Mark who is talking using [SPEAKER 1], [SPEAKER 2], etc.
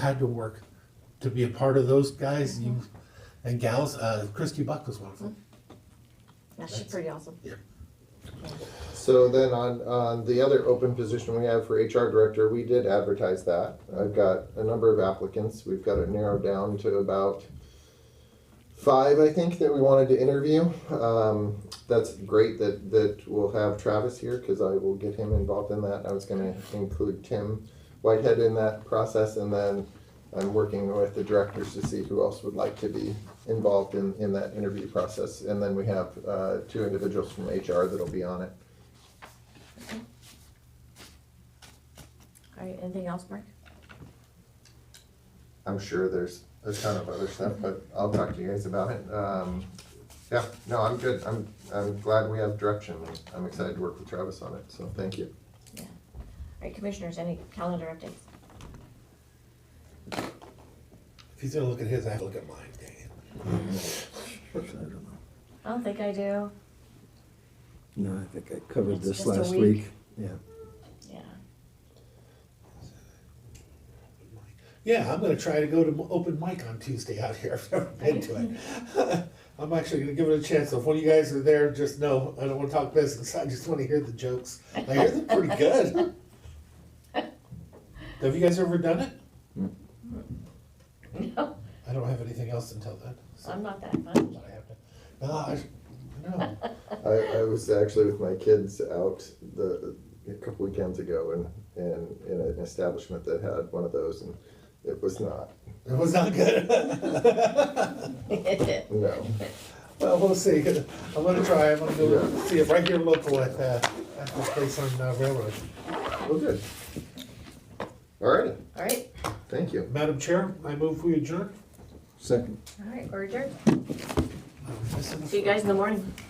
[SPEAKER 1] had to work to be a part of those guys you and gals. Uh, Christy Buck was one of them.
[SPEAKER 2] Yeah, she's pretty awesome.
[SPEAKER 1] Yeah.
[SPEAKER 3] So then on, on the other open position we have for HR director, we did advertise that. I've got a number of applicants. We've got it narrowed down to about five, I think, that we wanted to interview. Um, that's great that, that we'll have Travis here because I will get him involved in that. I was gonna include Tim Whitehead in that process and then I'm working with the directors to see who else would like to be involved in, in that interview process. And then we have, uh, two individuals from HR that'll be on it.
[SPEAKER 2] All right, anything else, Mark?
[SPEAKER 3] I'm sure there's a ton of other stuff, but I'll talk to you guys about it. Um, yeah, no, I'm good. I'm, I'm glad we have direction. I'm excited to work with Travis on it, so thank you.
[SPEAKER 2] Yeah. All right, commissioners, any calendar updates?
[SPEAKER 1] If he's gonna look at his, I have to look at mine. Dang it.
[SPEAKER 2] I don't think I do.
[SPEAKER 4] No, I think I covered
[SPEAKER 2] It's
[SPEAKER 4] this
[SPEAKER 2] just a
[SPEAKER 4] last
[SPEAKER 2] week.
[SPEAKER 4] week. Yeah.
[SPEAKER 2] Yeah.
[SPEAKER 1] Yeah, I'm gonna try to go to m- open mic on Tuesday out here. I've never been to it. I'm actually gonna give it a chance. So If one of you guys are there, just know I don't want to talk business. I just want to hear the jokes. I hear them pretty good. Have you guys ever done it?
[SPEAKER 2] No,
[SPEAKER 1] I don't have anything else until then. So
[SPEAKER 2] I'm not that fun.
[SPEAKER 1] but I have to. No, I, no.
[SPEAKER 3] I, I was actually with my kids out the, a couple weekends ago and, and in an establishment that had one of those and it was not,
[SPEAKER 1] It was not good.
[SPEAKER 3] no.
[SPEAKER 1] Well, we'll see. I'm gonna try. I'm gonna go see it right here local at, uh, at this place on uh, Railroad.
[SPEAKER 3] Well, good. All right,
[SPEAKER 2] All right,
[SPEAKER 3] thank you.
[SPEAKER 1] Madam Chair, I move we adjourn.
[SPEAKER 4] Second.
[SPEAKER 2] all right, we're adjourned.
[SPEAKER 1] I'm missing a
[SPEAKER 2] See you guys in the morning.